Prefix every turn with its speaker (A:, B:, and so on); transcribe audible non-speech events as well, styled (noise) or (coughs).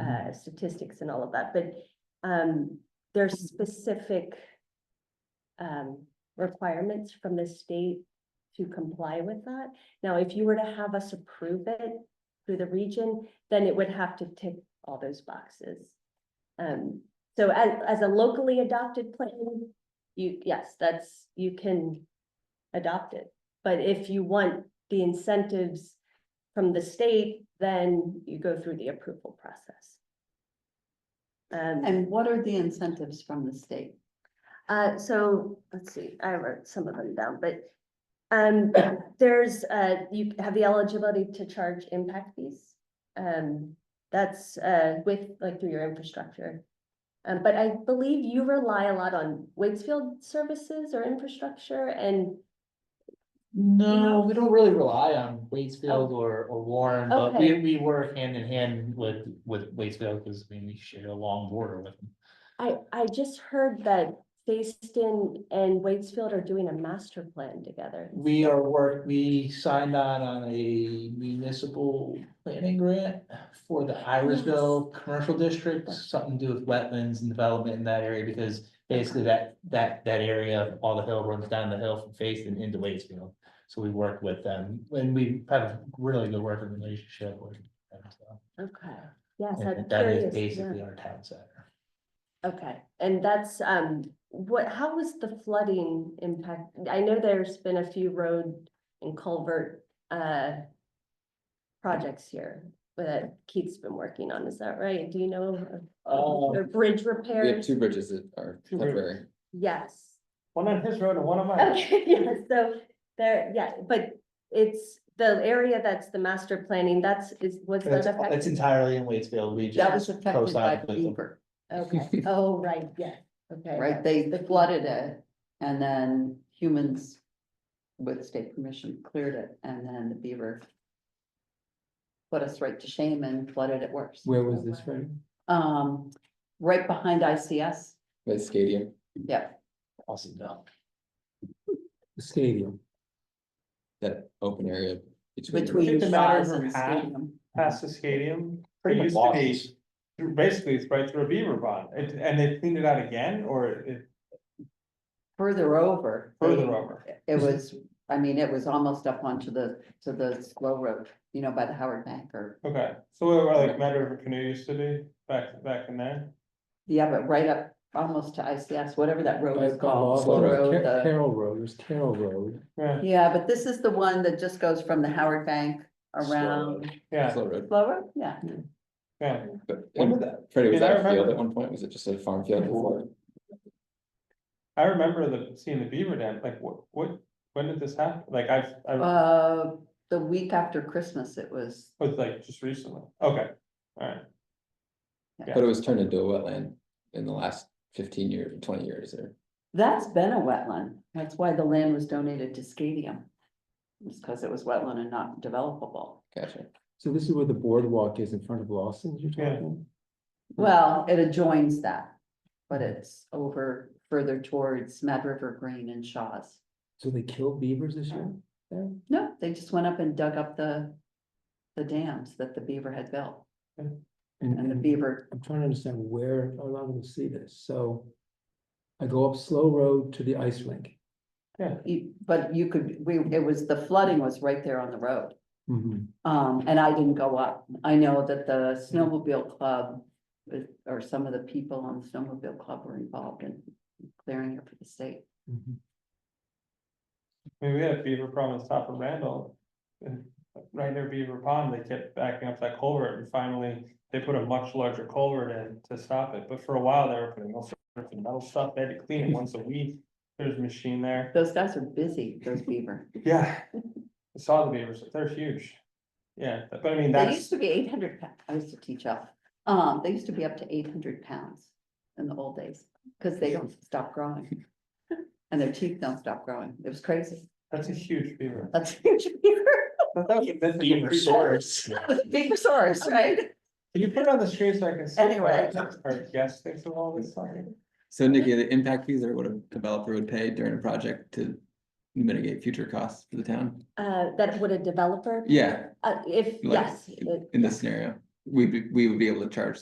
A: uh, statistics and all of that, but, um, there's specific um, requirements from the state to comply with that. Now, if you were to have us approve it through the region, then it would have to tick all those boxes. Um, so as, as a locally adopted plan, you, yes, that's, you can adopt it. But if you want the incentives from the state, then you go through the approval process. Um,
B: And what are the incentives from the state?
A: uh, so, let's see, I wrote some of them down, but um, (coughs) there's, uh, you have the eligibility to charge impact fees. Um, that's, uh, with, like, through your infrastructure. Um, but I believe you rely a lot on Waitsfield services or infrastructure and,
C: No, we don't really rely on Waitsfield or, or Warren, but we,
A: Okay.
C: we work hand in hand with, with Waitsfield, because I mean, we share a long border with them.
A: I, I just heard that Facein and Waitsfield are doing a master plan together.
C: We are work, we signed on on a municipal planning grant for the Irisville Commercial District, something to do with wetlands and development in that area, because basically that, that, that area, all the hill runs down the hill from Faith and into Waitsfield. So we work with them, and we have a really good working relationship with them, so.
A: Okay, yes, I'm
C: And that is
A: curious. yeah.
C: basically our town center.
A: Okay, and that's, um, what, how was the flooding impact? I know there's been a few road and culvert, uh, projects here that Keith's been working on, is that right? Do you know? of-
D: Um,
C: Oh.
A: Or bridge
D: We have
A: repairs?
D: two bridges that are
C: Two bridges.
D: temporary.
A: Yes.
C: One on his road and one on
A: Okay, (laughs) yeah, so there, yeah, but it's the area that's the master planning, that's, is, was that
C: That's, that's
A: affected?
C: entirely in Waitsfield, we
B: That
C: just,
B: was affected by
C: cosign with them.
B: Beaver,
A: Okay, oh, right, yeah, okay.
B: right? They flooded it and then humans with state permission cleared it and then the Beaver put us right to shame and flooded it worse.
E: Where was this from?
B: Um, right behind ICS,
D: The stadium,
B: yeah,
C: awesome, no.
E: The stadium.
D: that open area between.
B: between
F: It's a matter
B: Shaw's
F: of
B: and
F: half.
B: Stadium.
F: past the stadium. It
C: Pretty much
F: used to be, basically, it's right through a beaver pond, It- and they cleaned it out again, or it
B: Further over.
F: further over?
B: It was, I mean, it was almost up onto the, to the slow road, you know, by the Howard Bank or,
F: Okay, so where where, like Mad River Canoe used to be, back, back in there?
B: yeah, but right up almost to ICS, whatever that road is
E: I've got all
B: called.
E: of
D: Slow
E: them.
B: slow road,
E: Car-
B: the-
E: Carroll Road, it was Carroll Road.
F: Yeah,
B: Yeah, but this is the one that just goes from the Howard Bank around.
F: yeah,
D: Slow road,
B: Slow road, yeah.
F: yeah.
D: but
F: When did
D: and
F: that?
D: Freddie, was
F: Yeah, I
D: that a field
F: remember.
D: at one point? Was it just a farm field before?
F: I remember the, seeing the beaver dam, like, what, what, when did this happen? Like, I've, I
B: Uh, the week after Christmas, it was,
F: was like, just recently, okay, alright.
D: But it was turned into a wetland in the last fifteen years, twenty years or.
B: that's been a wetland. That's why the land was donated to Scadium. It's because it was wetland and not developable.
D: Gotcha.
E: So this is where the boardwalk is in front of Lawson's you're
F: Yeah.
E: talking?
B: Hmm. Well, it adjoins that, but it's over further towards Mad River Green and Shaw's.
E: So they killed beavers this year? there?
B: No, they just went up and dug up the, the dams that the beaver had built
E: And,
B: and the
E: and
B: beaver,
E: I'm trying to understand where, how long to see this, so. I go up Slow Road to the ice rink.
B: you- but you could, we, it was, the flooding was right there on the road.
E: Mhm.
B: Um, and I didn't go up. I know that the snowmobile club uh, or some of the people on the snowmobile club were involved in clearing it for the state.
E: Mhm.
F: I mean, we had a beaver problem on top of Randall. And right near Beaver Pond, they kept backing up that culvert and finally they put a much larger culvert in to stop it. But for a while, they were putting all sorts of metal stuff. They had to clean it once a week. There's a machine there.
B: Those guys are busy, those beaver.
F: Yeah. I saw the beavers. They're huge. Yeah, but but I mean,
B: They used
F: that's,
B: to be eight hundred, I used to teach off, um, they used to be up to eight hundred pounds in the old days, because they don't stop growing. And their teeth don't stop growing, it was crazy,
F: that's a huge beaver.
B: that's (laughs) huge beaver,
F: That was a bit-
B: big source, right?
F: Can you put it on the screen so I can see?
B: Anyway.
F: Our guests think of all this stuff.
D: So Nikki, the impact fees are what a developer would pay during a project to mitigate future costs for the town.
A: Uh, that would a developer?
D: Yeah,
A: Uh, if,
D: like,
A: yes. it-
D: in this scenario, we, we would be able to charge